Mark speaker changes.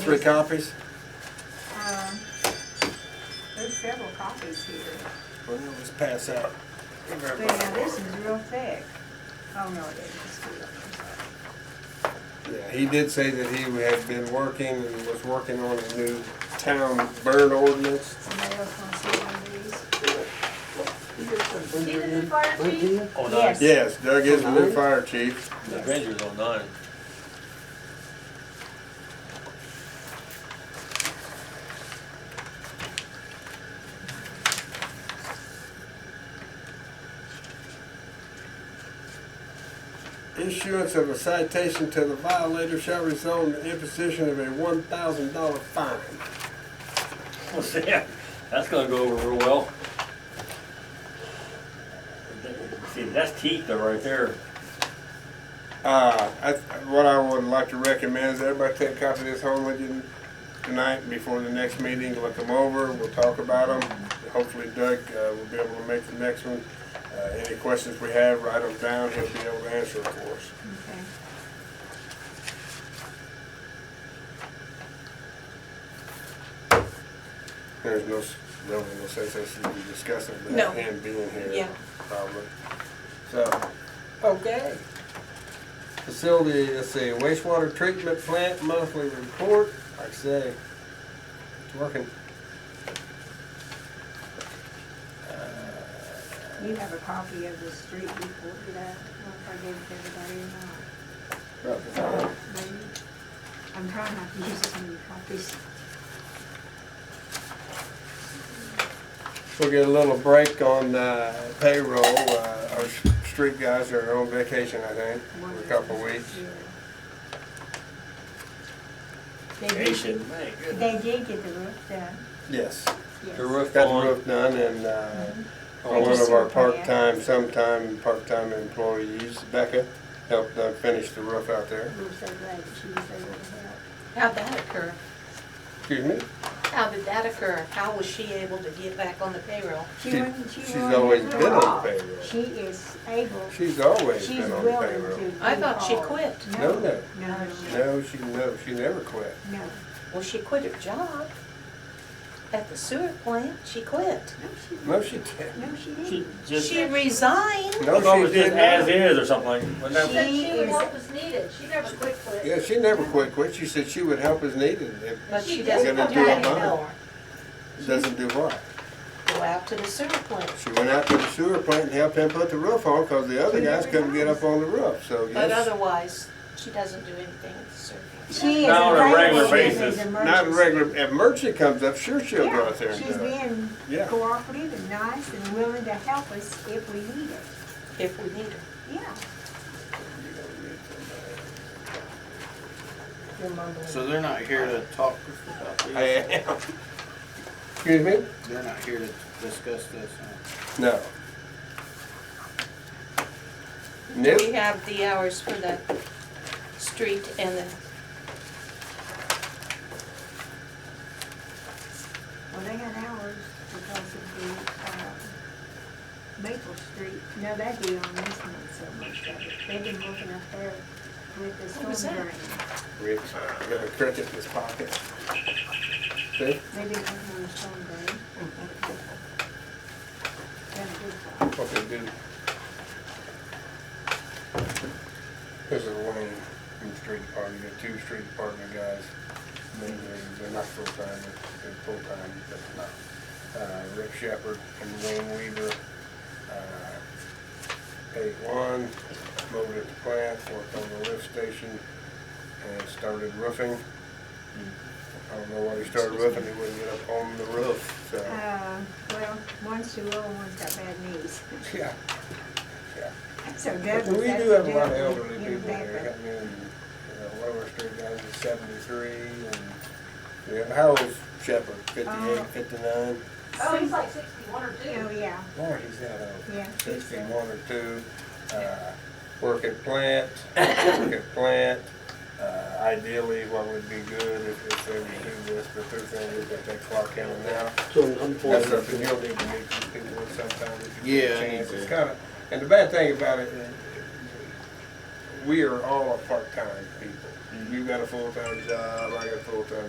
Speaker 1: Three copies?
Speaker 2: Um, There's several copies here.
Speaker 1: Well, let's pass out.
Speaker 2: Yeah, this is real thick. Oh, no, it isn't. It's real. I'm sorry.
Speaker 1: Yeah, he did say that he had been working and was working on a new town burn ordinance.
Speaker 2: Somebody else wants to see one of these?
Speaker 3: See the new fire chief?
Speaker 4: Oh, nine.
Speaker 2: Yes.
Speaker 1: Yes, Doug is the new fire chief.
Speaker 4: The Granger's on nine.
Speaker 1: Issuance of a citation to the violator shall result in the imposition of a one thousand dollar fine.
Speaker 4: Well, see, that's gonna go over real well. See, that's teeth though, right there.
Speaker 1: Uh, I, what I would like to recommend is everybody take a copy of this home with you tonight before the next meeting, look them over, we'll talk about them. Hopefully Doug, uh, will be able to make the next one. Uh, any questions we have, write them down, he'll be able to answer, of course.
Speaker 2: Okay.
Speaker 1: There's no, s- really no sense us even discussing it
Speaker 5: No.
Speaker 1: without him being
Speaker 5: Yeah.
Speaker 1: here, probably. So, okay. Facility, let's see, wastewater treatment plant monthly report, like I say, it's working. Uh,
Speaker 2: You have a copy of the street report for that, I don't know if I gave it to everybody or not, maybe? I'm trying not to use as many copies.
Speaker 1: We'll get a little break on uh, payroll, Uh, our s- street guys are on vacation, I think,
Speaker 2: One
Speaker 1: for a
Speaker 2: is-
Speaker 1: couple of weeks.
Speaker 2: yeah. They did,
Speaker 4: Nation, man, good.
Speaker 2: they did get the roof done,
Speaker 1: Yes,
Speaker 2: yes.
Speaker 4: The roof
Speaker 1: got the
Speaker 4: on,
Speaker 1: roof done and uh,
Speaker 2: I
Speaker 1: one
Speaker 2: just
Speaker 1: of our
Speaker 2: saw that.
Speaker 1: part-time, sometime part-time employees, Becca, helped uh, finish the roof out there.
Speaker 2: We were so glad that she was able to help.
Speaker 5: How'd that occur?
Speaker 1: Excuse me?
Speaker 5: How did that occur? How was she able to get back on the payroll?
Speaker 2: She
Speaker 1: She-
Speaker 2: wasn't, she
Speaker 1: she's
Speaker 2: wasn't
Speaker 1: always
Speaker 2: at
Speaker 1: been on
Speaker 2: all.
Speaker 1: payroll.
Speaker 2: She is able,
Speaker 1: She's always
Speaker 2: she's
Speaker 1: been on the
Speaker 2: willing to.
Speaker 1: payroll.
Speaker 5: I thought she
Speaker 2: do all.
Speaker 5: quit.
Speaker 1: No, no.
Speaker 2: No, no,
Speaker 1: No, she, no, she never quit.
Speaker 2: no,
Speaker 5: Well, she quit her job at the sewer plant. She quit.
Speaker 2: no, she,
Speaker 1: No, she didn't.
Speaker 2: no, she
Speaker 4: she
Speaker 2: didn't.
Speaker 4: just,
Speaker 5: She resigned.
Speaker 4: I thought it
Speaker 1: No,
Speaker 4: was
Speaker 1: she
Speaker 4: just as
Speaker 1: didn't.
Speaker 4: is or something like, wasn't that-
Speaker 2: She
Speaker 3: Said she would
Speaker 2: is-
Speaker 3: help us need it. She never quit quit.
Speaker 1: Yeah, she never quit, quit. She said she would help as needed. It
Speaker 5: But she
Speaker 3: She
Speaker 5: doesn't
Speaker 1: didn't
Speaker 5: come
Speaker 1: do
Speaker 5: back
Speaker 1: it, huh?
Speaker 5: anymore.
Speaker 1: doesn't do what?
Speaker 5: Go out to the sewer plant.
Speaker 1: She went out to the sewer plant and helped him put the roof on because the other
Speaker 2: She
Speaker 1: guys
Speaker 2: never
Speaker 1: couldn't get
Speaker 2: does.
Speaker 1: up on the roof, so
Speaker 5: But
Speaker 1: yes.
Speaker 5: otherwise, she doesn't do anything at the sewer plant.
Speaker 2: She is.
Speaker 4: Not on a
Speaker 2: available
Speaker 4: regular
Speaker 2: if there's
Speaker 4: basis.
Speaker 1: Not
Speaker 2: emergency.
Speaker 1: regular, if Merchant comes up, sure she'll go
Speaker 2: Yeah,
Speaker 1: out there and
Speaker 2: she's
Speaker 1: do it.
Speaker 2: being
Speaker 1: Yeah.
Speaker 2: cooperative and nice and willing to help us if we need it,
Speaker 5: If we need her.
Speaker 2: yeah.
Speaker 5: You're mumbling.
Speaker 6: So they're not here to talk about
Speaker 1: I
Speaker 6: this?
Speaker 1: am. Excuse me?
Speaker 6: They're not here to discuss this, huh?
Speaker 1: No.
Speaker 5: Do
Speaker 1: Nope.
Speaker 5: we have the hours for the street and the,
Speaker 2: Well, they got hours because of the, uh, Maple Street, no, that'd be on this month, so much of it. They've been working up there with the
Speaker 5: What was
Speaker 2: storm
Speaker 5: that?
Speaker 2: drain.
Speaker 1: Rick's got a cricket in his pocket. See?
Speaker 2: They've been working on the storm drain. Done a good job.
Speaker 1: What they do. This is Wayne from the street department, you got two street department guys. They're, they're not full-time, but they're full-time, but not. Uh, Rick Shepherd and Wayne Weaver. uh, Paid one, mowed at the plant, worked on the lift station, and started roofing. I don't know why he started roofing, he wouldn't get up on the roof, so.
Speaker 2: Uh, well, one's too low and one's got bad knees.
Speaker 1: Yeah.
Speaker 2: So
Speaker 1: But
Speaker 2: Doug
Speaker 1: We do
Speaker 2: was. that's
Speaker 1: have a
Speaker 2: Doug
Speaker 1: lot of
Speaker 2: in-
Speaker 1: elderly
Speaker 2: in
Speaker 1: people here,
Speaker 2: Tampa.
Speaker 1: I mean, you know, Lower Street guys is seventy-three, and, yeah, how old's Shepherd,
Speaker 2: Uh,
Speaker 1: fifty-eight, fifty-nine?
Speaker 3: Oh, he's like sixty-one or two.
Speaker 2: Oh, yeah,
Speaker 1: Boy, he's that old.
Speaker 2: yeah. he's, uh,
Speaker 1: Sixty-one or two, uh, work at plant, work at plant, uh, ideally, what would be good if, if they would do this, but their thing is that they clock in and out.
Speaker 7: So
Speaker 1: That's something
Speaker 7: unfortunately,
Speaker 1: you'll need to meet these people sometime if you
Speaker 6: Yeah,
Speaker 1: get
Speaker 6: I
Speaker 1: a
Speaker 6: need
Speaker 1: chance.
Speaker 6: to.
Speaker 1: It's kinda, and the bad thing about it, we are all part-time people. You got a full-time job, I got a full-time